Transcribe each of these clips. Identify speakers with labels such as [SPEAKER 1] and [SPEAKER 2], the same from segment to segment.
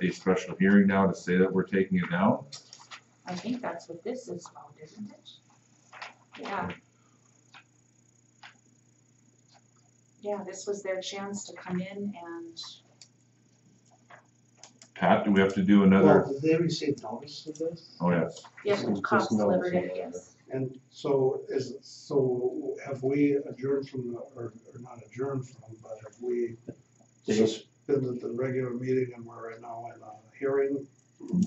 [SPEAKER 1] a special hearing now to say that we're taking it down?
[SPEAKER 2] I think that's what this is about, isn't it? Yeah. Yeah, this was their chance to come in and,
[SPEAKER 1] Pat, do we have to do another?
[SPEAKER 3] Well, did they receive notice of this?
[SPEAKER 1] Oh, yes.
[SPEAKER 2] yes,
[SPEAKER 4] Just
[SPEAKER 2] cops
[SPEAKER 4] notice
[SPEAKER 2] delivered
[SPEAKER 4] on
[SPEAKER 2] it,
[SPEAKER 4] the-
[SPEAKER 2] yes.
[SPEAKER 3] And so is, so have we adjourned from, the or, or not adjourned from, but have we
[SPEAKER 4] Did you-
[SPEAKER 3] suspended the regular meeting and we're right now in a hearing?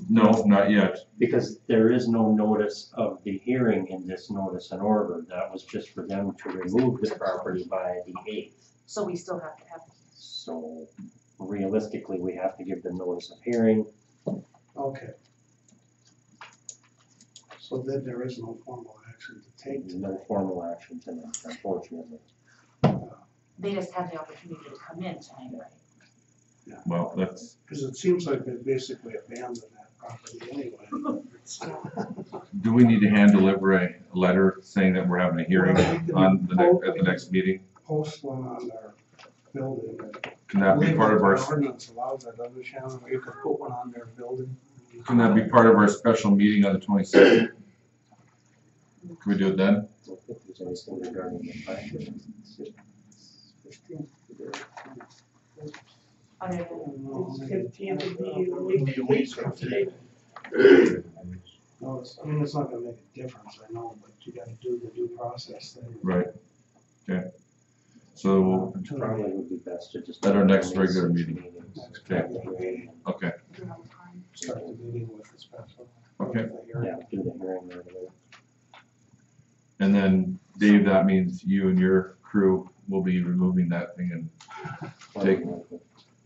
[SPEAKER 1] No, not yet.
[SPEAKER 4] Because there is no notice of the hearing in this notice and order, that was just for them to remove the property by the eighth.
[SPEAKER 2] So we still have to have,
[SPEAKER 4] So realistically, we have to give them notice of hearing,
[SPEAKER 3] Okay. So then there is no formal action to take
[SPEAKER 4] There's
[SPEAKER 3] tonight.
[SPEAKER 4] no formal action tonight, unfortunately.
[SPEAKER 2] they just had the opportunity to come in tonight, right?
[SPEAKER 1] Well, that's,
[SPEAKER 3] Cause it seems like they basically abandoned that property anyway.
[SPEAKER 1] do we need to hand deliver a letter saying that we're having a hearing
[SPEAKER 3] Well, we can
[SPEAKER 1] on the next, at the next meeting?
[SPEAKER 3] Post one on their building.
[SPEAKER 1] Can that be part of our,
[SPEAKER 3] Ordinance allows that, doesn't it, Shannon? You could put one on their building.
[SPEAKER 1] can that be part of our special meeting on the twenty-second? Can we do it then?
[SPEAKER 4] I don't think there's anything regarding the fact that
[SPEAKER 2] Other than,
[SPEAKER 5] Fifteenth would be a week- a week from today.
[SPEAKER 3] No, it's, I mean, it's not gonna make a difference, I know, but you gotta do the due process thing.
[SPEAKER 1] Right. Okay. So,
[SPEAKER 4] it probably would be best to just.
[SPEAKER 1] At our next regular meeting.
[SPEAKER 3] Next
[SPEAKER 1] Okay.
[SPEAKER 3] regular meeting,
[SPEAKER 1] okay,
[SPEAKER 2] you know, time.
[SPEAKER 3] Start the meeting with the special.
[SPEAKER 1] Okay.
[SPEAKER 3] with the hearing.
[SPEAKER 4] Yeah, do the hearing right away.
[SPEAKER 1] and then Dave, that means you and your crew will be removing that thing and Take-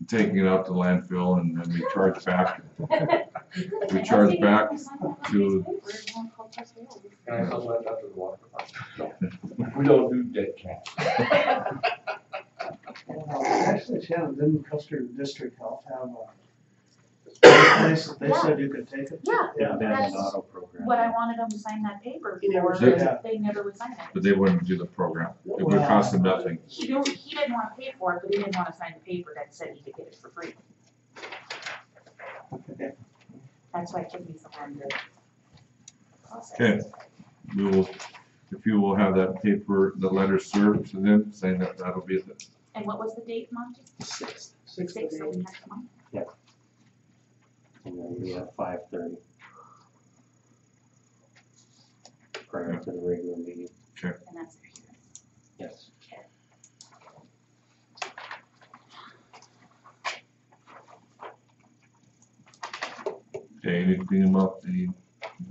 [SPEAKER 1] taking it out to landfill and then we charge back We charge back to-
[SPEAKER 6] And I also left after the water department. We don't do dead cats.
[SPEAKER 3] Actually, Shannon, didn't Custer District Health have a place that they said you could take it?
[SPEAKER 2] Yeah,
[SPEAKER 4] Yeah,
[SPEAKER 2] That's
[SPEAKER 4] abandoned auto program.
[SPEAKER 2] what I wanted them to sign that paper
[SPEAKER 5] You never
[SPEAKER 2] for,
[SPEAKER 1] said
[SPEAKER 3] that.
[SPEAKER 2] they never would sign it.
[SPEAKER 1] But they wouldn't do the program. It would cost them nothing.
[SPEAKER 2] He don't, he didn't wanna pay for it, but he didn't wanna sign the paper that said he could get it for free. That's why it took me so long to process.
[SPEAKER 1] Okay. We will, if you will have that paper, the letter served to them saying that that'll be the,
[SPEAKER 2] And what was the date, Monty?
[SPEAKER 3] Six
[SPEAKER 2] Six,
[SPEAKER 3] days.
[SPEAKER 2] so next month?
[SPEAKER 4] And then we have five thirty. Prior to the regular meeting,
[SPEAKER 2] And that's it.
[SPEAKER 4] yes.
[SPEAKER 1] okay, you need to clean them up, any,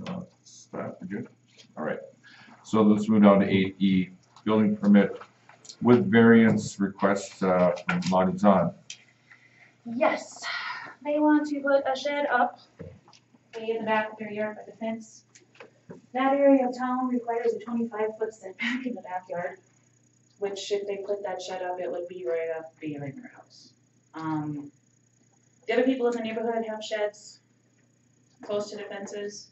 [SPEAKER 1] uh, staff, we're good? All right. So let's move down to eight E, building permit with variance request, uh, from Montezon.
[SPEAKER 2] Yes, they want to put a shed up way in the back of their yard by the fence. That area of town requires a twenty-five foot setback in the backyard, which if they put that shed up, it would be right up behind their house. Um, the other people in the neighborhood have sheds close to the fences.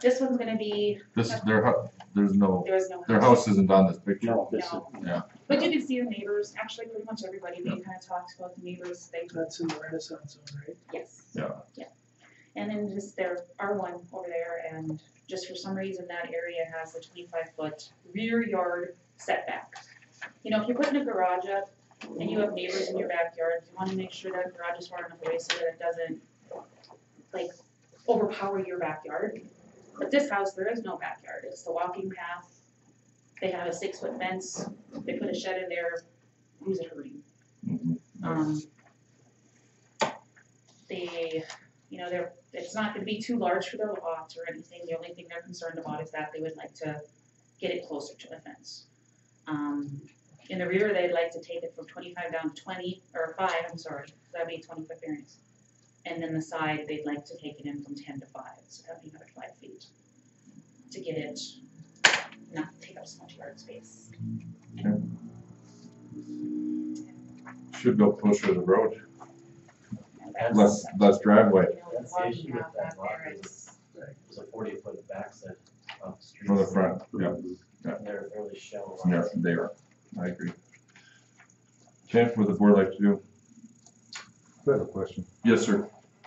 [SPEAKER 2] This one's gonna be,
[SPEAKER 1] This is their hu- there's no,
[SPEAKER 2] there is no.
[SPEAKER 1] their house isn't on this picture.
[SPEAKER 4] No, this is,
[SPEAKER 2] No.
[SPEAKER 1] Yeah.
[SPEAKER 2] But you can see the neighbors, actually pretty much everybody, they kind of talked about the neighbors, they
[SPEAKER 5] That's in the Renaissance zone, right?
[SPEAKER 2] Yes.
[SPEAKER 1] Yeah.
[SPEAKER 2] Yeah. And then just there are one over there and just for some reason that area has a twenty-five foot rear yard setback. You know, if you're putting a garage up and you have neighbors in your backyard, you wanna make sure that garage is far enough away so that it doesn't like overpower your backyard. But this house, there is no backyard. It's the walking path. They have a six-foot fence. They put a shed in there. Who's it hurting?
[SPEAKER 1] Mhm.
[SPEAKER 2] Um, they, you know, they're, it's not gonna be too large for their lots or anything, the only thing they're concerned about is that they would like to get it closer to the fence. Um, in the rear, they'd like to take it from twenty-five down to twenty, or five, I'm sorry, so that'd be twenty-foot variance. And then the side, they'd like to take it in from ten to five, so that'd be another five feet, to get it, not take up so much yard space.
[SPEAKER 1] Should go closer to the road,
[SPEAKER 2] And that's-
[SPEAKER 1] less, less driveway.
[SPEAKER 2] You know,
[SPEAKER 7] That's the
[SPEAKER 2] why we
[SPEAKER 7] issue with
[SPEAKER 2] have
[SPEAKER 7] that
[SPEAKER 2] that
[SPEAKER 7] lot
[SPEAKER 2] there
[SPEAKER 7] is
[SPEAKER 2] is-
[SPEAKER 7] There's a forty foot backside of the street.
[SPEAKER 1] From the front, yeah.
[SPEAKER 7] And They're really shallow.
[SPEAKER 1] Yeah, they are. I agree. Jeff, what the board like to do?
[SPEAKER 8] I have a question.
[SPEAKER 1] Yes, sir.